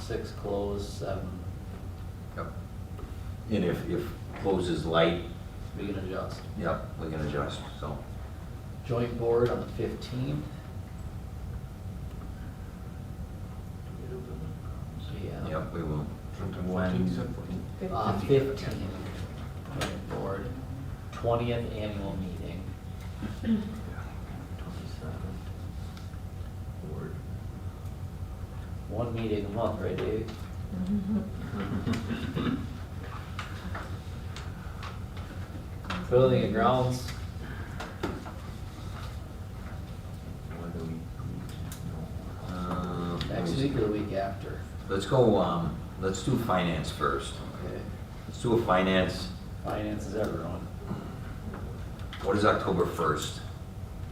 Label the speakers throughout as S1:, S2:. S1: six closed, seven,
S2: Yep. And if, if close is light,
S1: we can adjust.
S2: yep, we can adjust, so.
S1: Joint board on the fifteenth. Yeah.
S2: Yep, we will.
S3: When-
S1: Uh, fifteen, joint board, twentieth annual meeting. One meeting a month, right Dave? Building and grounds,
S2: Uh,
S1: next week or the week after?
S2: Let's go, um, let's do finance first.
S1: Okay.
S2: Let's do a finance,
S1: Finance is everyone,
S2: what is October first?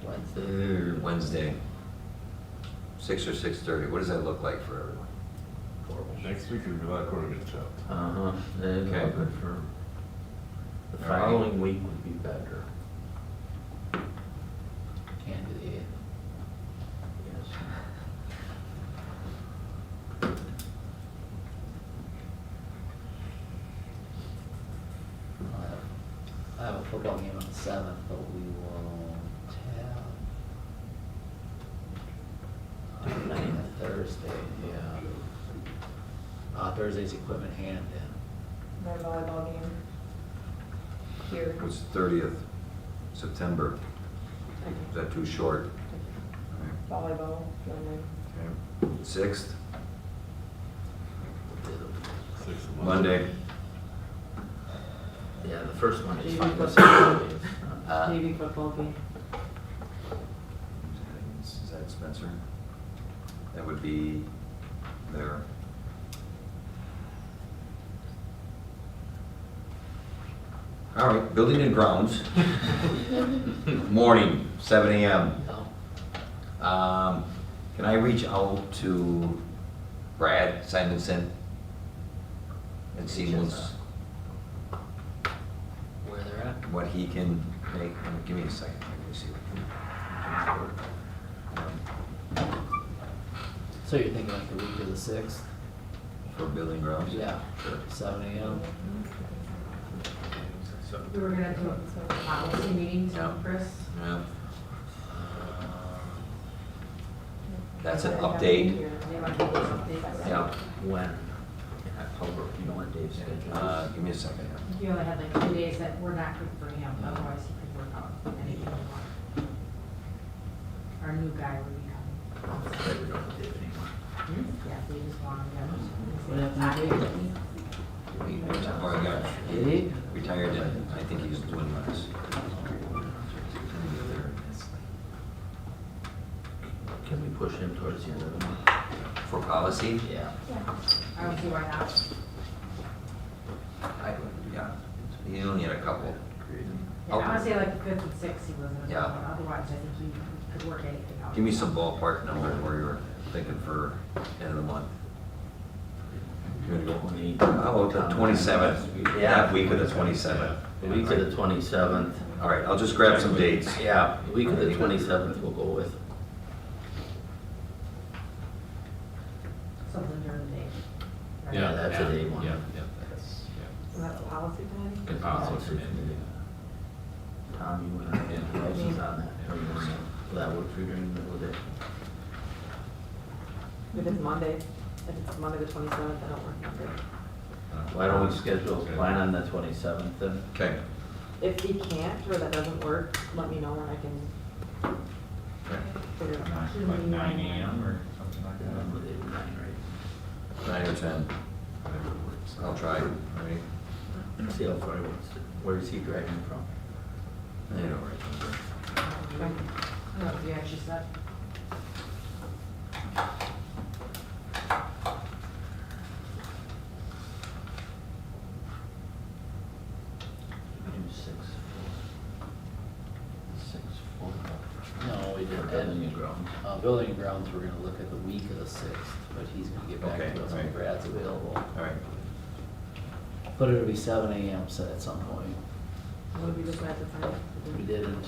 S1: Wednesday.
S2: Wednesday. Six or six thirty, what does that look like for everyone?
S4: Next week is July quarter get chopped.
S3: Uh-huh, that'd be
S2: Okay.
S3: good for, the
S2: All right.
S3: following week would be better,
S1: Can't do the eighth.
S3: yes.
S1: I'll have- I have a football game on the seventh, but we won't have. uh, Not even Thursday, yeah. Uh, Thursday's equipment hand in.
S5: My volleyball game here.
S2: It's thirtieth, September. Is that too short?
S5: Volleyball, filming.
S2: Sixth,
S4: Six of
S2: Monday.
S3: Yeah, the first one is
S6: Maybe
S3: fine, the
S6: football.
S3: second one is
S1: Uh,
S3: not.
S6: Maybe football game.
S2: Is that Spencer? That would be there. All right, building and grounds. Morning, seven AM.
S1: No,
S2: Um, Can I reach out to Brad Simonson? And see what's,
S1: where they're at.
S2: what he can make, give me a second, let me see what he Um, can.
S1: So you're thinking like the week of the sixth?
S2: For building grounds?
S1: Yeah,
S2: Sure.
S1: seven AM.
S6: We were gonna do some policy meetings,
S2: Yeah.
S6: Chris.
S2: Yeah.
S1: Uh,
S2: That's an update.
S6: They might give us updates.
S2: Yeah,
S3: When, in October, you know what Dave's schedule
S2: uh,
S3: is?
S2: give me a second. here.
S6: He only had like two days that were not good for him, otherwise he could work out anything he wanted. Our new guy will be
S3: That we
S6: coming. Hmm?
S3: don't have Dave anymore.
S6: Yeah, we just want him
S1: What
S6: to have.
S1: happened to Dave?
S2: We reti- or I got
S1: Did he?
S2: Retired, and I think he's doing less.
S1: Uh,
S3: Can we push him towards the end of the month?
S2: For policy?
S1: Yeah.
S6: Yeah, I would see why not.
S2: I, yeah, he only had a couple.
S6: Yeah, I wanna say like fifth and sixth he wasn't
S2: Yeah.
S6: available, otherwise I think he could work anything out.
S2: Give me some ballpark number where you're thinking for end of the month.
S3: Twenty-
S2: How about the twenty-seventh?
S3: Yeah.
S2: That week of the twenty-seventh.
S3: The week of the twenty-seventh,
S2: All right, I'll just grab some dates.
S3: yeah, the week of the twenty-seventh we'll go with.
S6: Something during the day. right?
S3: Yeah, that's a day one.
S7: Yeah, yeah, that's, yeah.
S5: So that's policy planning?
S7: Good policy committee.
S3: Tom, uh, you and I, and who else is on that? Or you wanna- Will that work for you during the middle of the day?
S5: If it's Monday, if it's Monday the twenty-seventh, I don't work Monday.
S3: Why don't we schedule a plan on the twenty-seventh then?
S2: Okay.
S5: If he can't, or that doesn't work, let me know and I can figure it out.
S7: Nine- Like nine AM or something like
S3: Remember
S7: that?
S3: they were nine, right?
S2: Nine or ten,
S7: Whatever works.
S2: I'll try. All right.
S3: See how far he wants to, where is he driving from?
S2: I don't remember.
S6: No, you actually said.
S3: Do six, four. Six, four.
S1: No, we
S3: For
S1: didn't.
S3: building and grounds.
S1: Uh, building and grounds, we're gonna look at the week of the sixth, but he's gonna get back
S2: Okay,
S1: to us when
S2: right.
S1: Brad's available.
S2: All right.
S1: But it'll be seven AM set at some point.
S5: Would we just have to find?
S1: We didn't.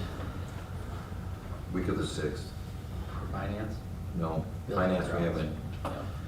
S2: Week of the sixth.
S1: For finance?
S2: No,
S1: Building
S2: finance we
S1: grounds.
S2: haven't
S1: Yeah.